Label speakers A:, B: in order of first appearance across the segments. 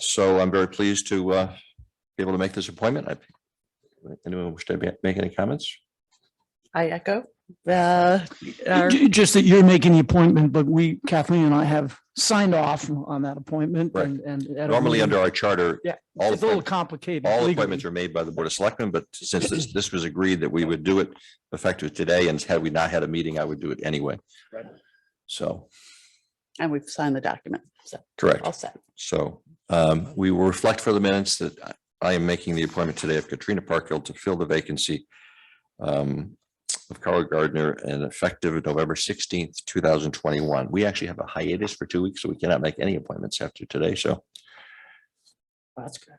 A: So I'm very pleased to uh, be able to make this appointment. I- Anyone wish to be- make any comments?
B: I echo. the- our-
C: J- Just that you're making the appointment, but we, Kathleen and I have signed off on that appointment
A: Right.
C: and, and. at a
A: Normally,
C: meeting.
A: under our charter,
C: Yeah,
A: all
C: It's a little
A: appointments,
C: complicated.
A: all
C: legally.
A: appointments are made by the Board of Selectmen, but since this, this was agreed that we would do it effective today, and had we not had a meeting, I would do it anyway. So,
B: And we've signed the document, so
A: correct.
B: all set.
A: So um, we will reflect for the minutes that I- I am making the appointment today of Katrina Parkhill to fill the vacancy um, of Carl Gardner and effective November sixteenth, two thousand twenty-one. We actually have a hiatus for two weeks, so we cannot make any appointments after today, so
B: That's good.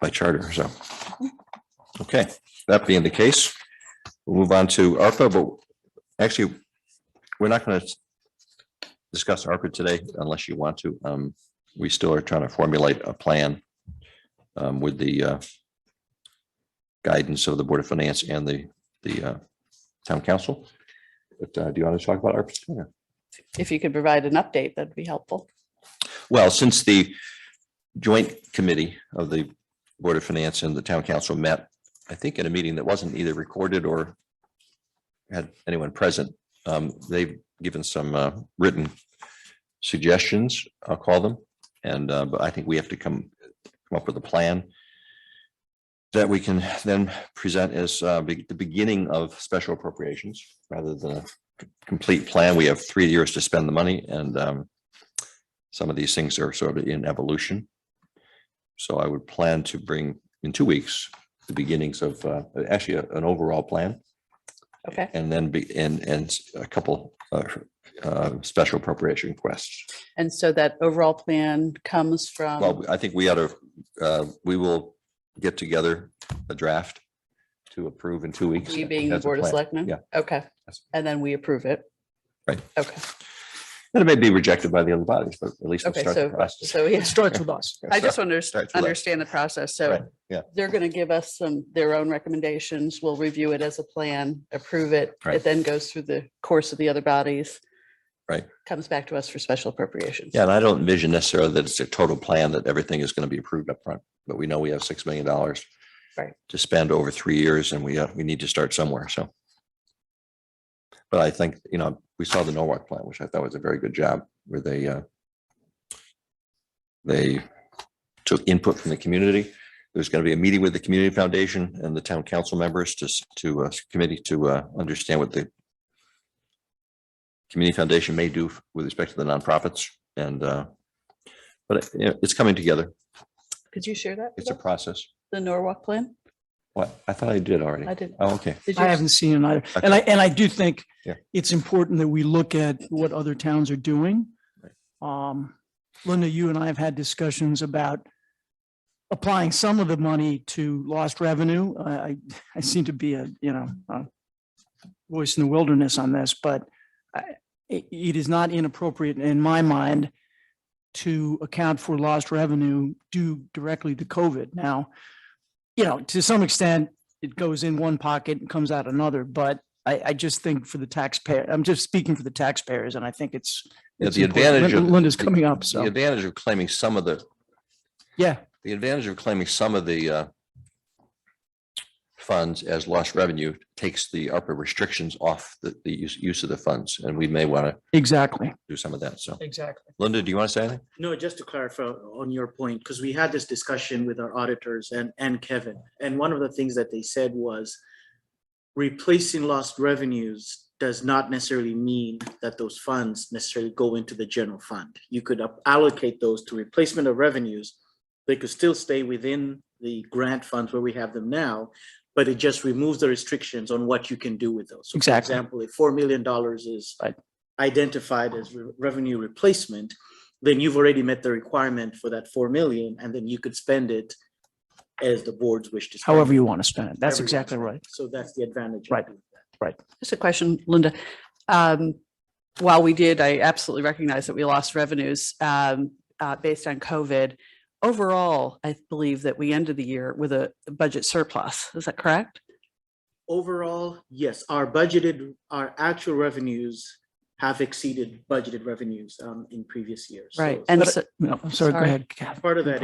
A: by charter, so. Okay, that being the case, we'll move on to ARPA, but actually, we're not going to discuss ARPA today unless you want to. Um, we still are trying to formulate a plan um, with the uh, guidance of the Board of Finance and the, the uh, town council. But uh, do you want to talk about ARPA? Yeah.
B: If you could provide an update, that'd be helpful.
A: Well, since the joint committee of the Board of Finance and the Town Council met, I think in a meeting that wasn't either recorded or had anyone present, um, they've given some uh, written suggestions, I'll call them. And uh, but I think we have to come, come up with a plan that we can then present as uh, be- the beginning of special appropriations rather than a complete plan. We have three years to spend the money and um, some of these things are sort of in evolution. So I would plan to bring in two weeks, the beginnings of uh, actually a- an overall plan
B: Okay.
A: and then be and and a couple uh, uh, special appropriation requests.
B: And so that overall plan comes from,
A: Well, I think we ought to, uh, we will get together a draft to approve in two weeks.
B: we being the
A: That's a
B: Board of
A: plan.
B: Selectmen?
A: yeah.
B: Okay.
A: Yes.
B: And then we approve it?
A: Right.
B: Okay,
A: And it may be rejected by the other bodies, but at least we'll
B: Okay,
A: start the
B: so-
A: process.
B: so yeah,
C: It starts with us.
B: I just want to
A: Start to that.
B: understand the process.
A: Right,
B: So
A: yeah.
B: they're going to give us some, their own recommendations. We'll review it as a plan, approve it.
A: Right.
B: It then goes through the course of the other bodies.
A: Right.
B: Comes back to us for special appropriations.
A: Yeah, and I don't envision necessarily that it's a total plan that everything is going to be approved up front, but we know we have six million dollars.
B: Right.
A: To spend over three years and we, uh, we need to start somewhere, so. But I think, you know, we saw the Norwalk plan, which I thought was a very good job where they, uh. They took input from the community. There's going to be a meeting with the community foundation and the town council members to, s- to a committee to, uh, understand what the Community Foundation may do with respect to the nonprofits and uh, but you know, it's coming together.
B: Could you share that? with
A: It's a
B: us?
A: process.
B: The Norwalk plan?
A: What? I thought I did already.
B: I didn't.
A: Oh, okay.
B: Did
C: I
B: you?
C: haven't seen it either.
A: Okay.
C: And I, and I do think
A: Yeah.
C: it's important that we look at what other towns are doing.
A: Right.
C: Um, Linda, you and I have had discussions about applying some of the money to lost revenue. I, I, I seem to be a, you know, a voice in the wilderness on this, but I, it- it is not inappropriate in my mind to account for lost revenue due directly to COVID. Now, you know, to some extent, it goes in one pocket and comes out another, but I, I just think for the taxpayer, I'm just speaking for the taxpayers and I think it's.
A: Yeah,
C: it's
A: the
C: important.
A: advantage of-
C: Lin- Linda's coming up,
A: The
C: so,
A: advantage of claiming some of the,
C: yeah,
A: the advantage of claiming some of the uh, funds as lost revenue takes the ARPA restrictions off the, the use, use of the funds, and we may want to
C: exactly.
A: do some of that. So
C: Exactly.
A: Linda, do you want to say anything?
D: No, just to clarify on your point, because we had this discussion with our auditors and, and Kevin, and one of the things that they said was replacing lost revenues does not necessarily mean that those funds necessarily go into the general fund. You could up- allocate those to replacement of revenues. They could still stay within the grant funds where we have them now, but it just removes the restrictions on what you can do with those. So for
C: Exactly.
D: Example, if four million dollars is
C: Right.
D: identified as re- revenue replacement, then you've already met the requirement for that four million, and then you could spend it as the board's wish to. spend
C: However
D: it.
C: you want to spend it. That's
D: Everyone's
C: exactly right.
D: So that's the advantage. of
C: Right.
D: doing that.
B: Just a question, Linda. Um, While we did, I absolutely recognize that we lost revenues um, uh, based on COVID. Overall, I believe that we ended the year with a budget surplus. Is that correct?
D: Overall, yes, our budgeted, our actual revenues have exceeded budgeted revenues um, in previous years. So-
B: Right. And so
C: No, I'm sorry, go
B: Sorry.
C: ahead. Kath.
D: Part of that